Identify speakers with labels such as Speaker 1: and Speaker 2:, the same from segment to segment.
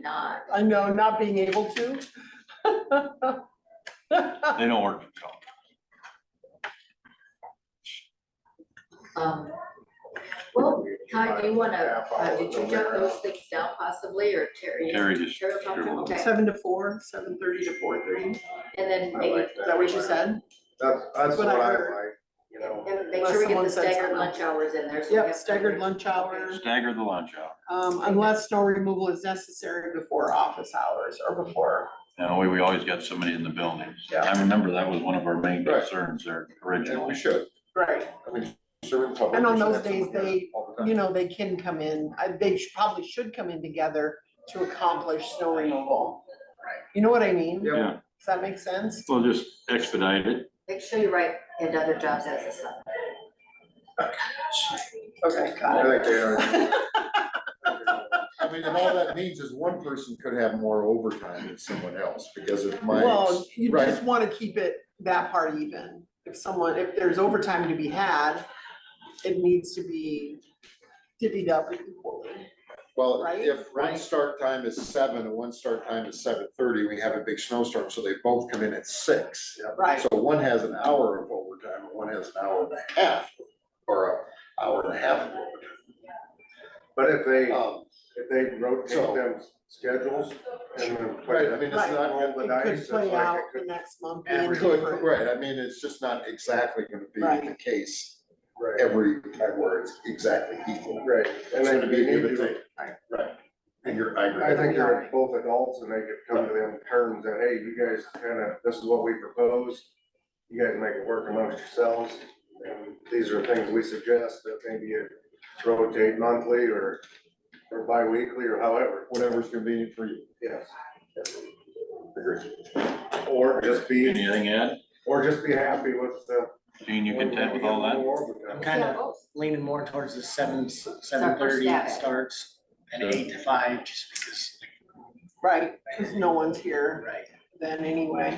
Speaker 1: not.
Speaker 2: I know, not being able to.
Speaker 3: They don't work. for Trump.
Speaker 1: Um, Well, Todd, do you wanna, uh, did you jot those things down possibly, or Terry?
Speaker 3: Terry just-
Speaker 1: Terry will talk to him, Oh, okay,
Speaker 2: Seven to four, seven thirty to four thirty, is
Speaker 1: and then
Speaker 4: I
Speaker 1: maybe,
Speaker 4: like
Speaker 2: that what you said?
Speaker 4: That's, that's
Speaker 2: What
Speaker 4: what
Speaker 2: I
Speaker 4: I like,
Speaker 2: heard.
Speaker 4: you know.
Speaker 1: and make
Speaker 2: Unless
Speaker 1: sure we get
Speaker 2: someone
Speaker 1: the
Speaker 2: said
Speaker 1: staggered
Speaker 2: something.
Speaker 1: lunch hours in there, so. we
Speaker 2: Yep,
Speaker 1: have-
Speaker 2: staggered lunch hour,
Speaker 3: Stagger the lunch hour.
Speaker 2: um, unless snow removal is necessary before office hours or before.
Speaker 3: You know, we, we always got somebody in the building.
Speaker 2: Yeah.
Speaker 3: I remember that was one of our main
Speaker 4: Right.
Speaker 3: concerns there
Speaker 4: And we
Speaker 3: originally.
Speaker 4: should,
Speaker 2: Right.
Speaker 4: I mean, serving public.
Speaker 2: And on
Speaker 4: we should
Speaker 2: those
Speaker 4: have
Speaker 2: days,
Speaker 4: someone here
Speaker 2: they-
Speaker 4: all the time.
Speaker 2: You know, they can come in, I, they should- probably should come in together to accomplish snow removal. You know what I mean?
Speaker 4: Yeah.
Speaker 3: Yeah,
Speaker 2: Does that make sense?
Speaker 3: we'll just expedite it.
Speaker 1: Make sure you write in other jobs as a sub.
Speaker 2: Okay,
Speaker 4: I
Speaker 2: got it.
Speaker 4: think they are. I mean, and all that means is one person could have more overtime than someone else because of my.
Speaker 2: Well, you
Speaker 4: right.
Speaker 2: just wanna keep it that part even. If someone, if there's overtime to be had, it needs to be divvied up equally.
Speaker 4: Well,
Speaker 2: Right?
Speaker 4: if one
Speaker 2: Right.
Speaker 4: start time is seven and one start time is seven thirty, we have a big snowstorm, so they both come in at six.
Speaker 2: Right.
Speaker 4: So one has an hour of overtime and one has an hour and a half, or a hour and a half of overtime.
Speaker 5: But if they,
Speaker 4: Um,
Speaker 5: if they
Speaker 4: So-
Speaker 5: rotate them schedules and then play
Speaker 4: Right, I
Speaker 5: them,
Speaker 4: mean, it's
Speaker 2: Right.
Speaker 4: not,
Speaker 5: roll
Speaker 4: gonna-
Speaker 5: the
Speaker 2: It
Speaker 5: dice,
Speaker 2: could
Speaker 5: it's like
Speaker 2: play out
Speaker 5: it
Speaker 2: the
Speaker 5: could.
Speaker 2: next month. being
Speaker 4: it could,
Speaker 2: different.
Speaker 4: right, I mean, it's just not exactly gonna be the
Speaker 2: Right.
Speaker 4: case
Speaker 5: Right,
Speaker 4: every time where it's exactly equal.
Speaker 5: right, and
Speaker 4: It's
Speaker 5: then
Speaker 4: gonna
Speaker 5: they
Speaker 4: be give
Speaker 5: need
Speaker 4: and
Speaker 5: to,
Speaker 4: take. Right. And you're, I agree.
Speaker 5: I think they're both adults and they could come to them terms that, hey, you guys kinda, this is what we propose. You guys make it work amongst yourselves, and these are things we suggest that maybe you rotate monthly or, or bi-weekly or however,
Speaker 4: Whatever's convenient for you.
Speaker 5: yes.
Speaker 4: Agree.
Speaker 5: Or just be,
Speaker 3: Anything, Ed?
Speaker 5: or just be happy with the.
Speaker 3: Gene, you content with all that?
Speaker 5: More overtime.
Speaker 6: I'm kind
Speaker 1: Yeah,
Speaker 6: of
Speaker 1: both.
Speaker 6: leaning more towards the seven, seven thirty
Speaker 1: Start for static.
Speaker 6: starts and
Speaker 3: Good.
Speaker 6: eight to five, just because,
Speaker 2: Right, cause no one's here
Speaker 6: right?
Speaker 2: then anyway.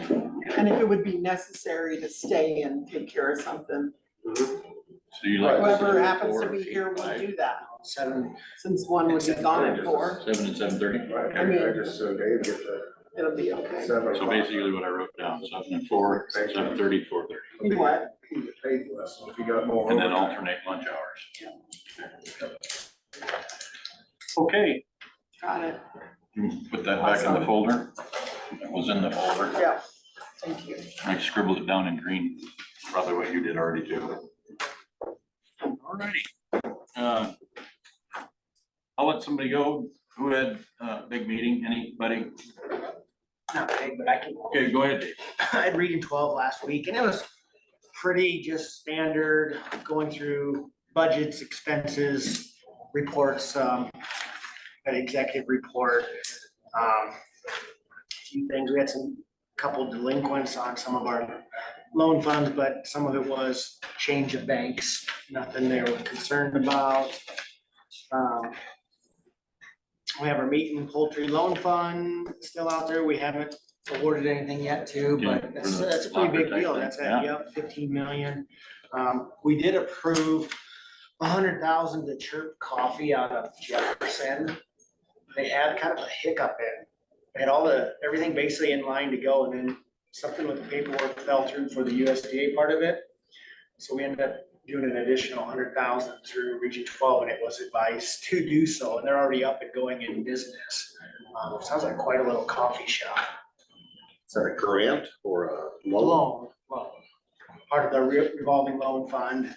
Speaker 2: And if it would be necessary to stay and take care of something,
Speaker 5: Mhm.
Speaker 3: So you like.
Speaker 2: whoever
Speaker 3: seven,
Speaker 2: happens to
Speaker 3: four,
Speaker 2: be
Speaker 3: eight,
Speaker 2: here will
Speaker 3: five,
Speaker 2: do that,
Speaker 6: Seven,
Speaker 2: since one would be gone at four,
Speaker 3: Seven and seven thirty.
Speaker 5: Right,
Speaker 2: I mean-
Speaker 5: I just, so Dave gets a
Speaker 2: it'll be okay.
Speaker 5: seven.
Speaker 3: So basically what I wrote down, seven and four, seven thirty, four thirty,
Speaker 2: You what?
Speaker 5: He paid less if he got more.
Speaker 3: and then
Speaker 5: overtime.
Speaker 3: alternate lunch hours. Okay,
Speaker 2: Got it,
Speaker 3: put that back in the folder. That was in the folder.
Speaker 2: yeah. Thank you.
Speaker 3: I scribbled it down in green, probably what you did already too. Alrighty. Uh, I'll let somebody go. Who had a big meeting? Anybody?
Speaker 6: not big, but I can,
Speaker 3: Okay, go ahead, Dave.
Speaker 6: I had reading twelve last week and it was pretty just standard, going through budgets, expenses, reports, um, an executive report. um, a Few things, we had some, couple delinquents on some of our loan funds, but some of it was change of banks, nothing they were concerned about. Um, We have our meat and poultry loan fund still out there, we haven't awarded anything yet to,
Speaker 3: Yeah,
Speaker 6: but that's,
Speaker 3: for the
Speaker 6: that's a pretty big
Speaker 3: locker
Speaker 6: deal,
Speaker 3: type
Speaker 6: that's,
Speaker 3: thing, yeah.
Speaker 6: at, yep, fifteen million. Um, we did approve a hundred thousand to Chirp Coffee out of Jefferson. They had kind of a hiccup in, they had all the, everything basically in line to go, and then something with the paperwork fell through for the USDA part of it. So we ended up doing an additional hundred thousand through Region twelve, and it was advised to do so, and they're already up and going in business. Um, sounds like quite a little coffee shop.
Speaker 4: Is that a grant or a loan?
Speaker 6: Loan, loan, part of the re- revolving loan fund.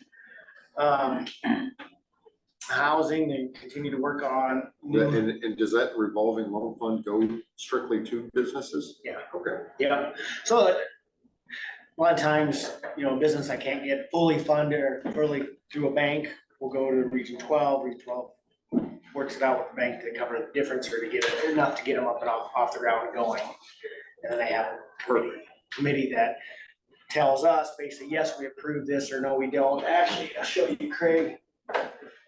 Speaker 6: Um, Housing, they continue to work on. new-
Speaker 4: And, and does that revolving loan fund go strictly to businesses?
Speaker 6: Yeah.
Speaker 4: Okay.
Speaker 6: Yeah, so uh, a lot of times, you know, business I can't get fully funded or fully through a bank, will go to Region twelve, Region twelve works it out with the bank to cover the difference or to get it, enough to get them up and off, off the ground and going. And then they have a committee- committee that tells us basically, yes, we approve this or no, we don't. Actually, I'll show you Craig.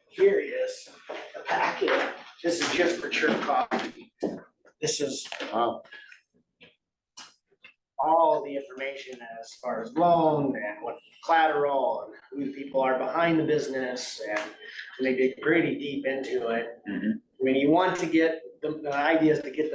Speaker 6: Here is the packet. This is just for church coffee. This is
Speaker 4: Wow.
Speaker 6: all the information as far as loan and what collateral and who the people are behind the business and and they dig pretty deep into it.
Speaker 3: Mhm.
Speaker 6: I mean, you want to get, the, the idea is to get the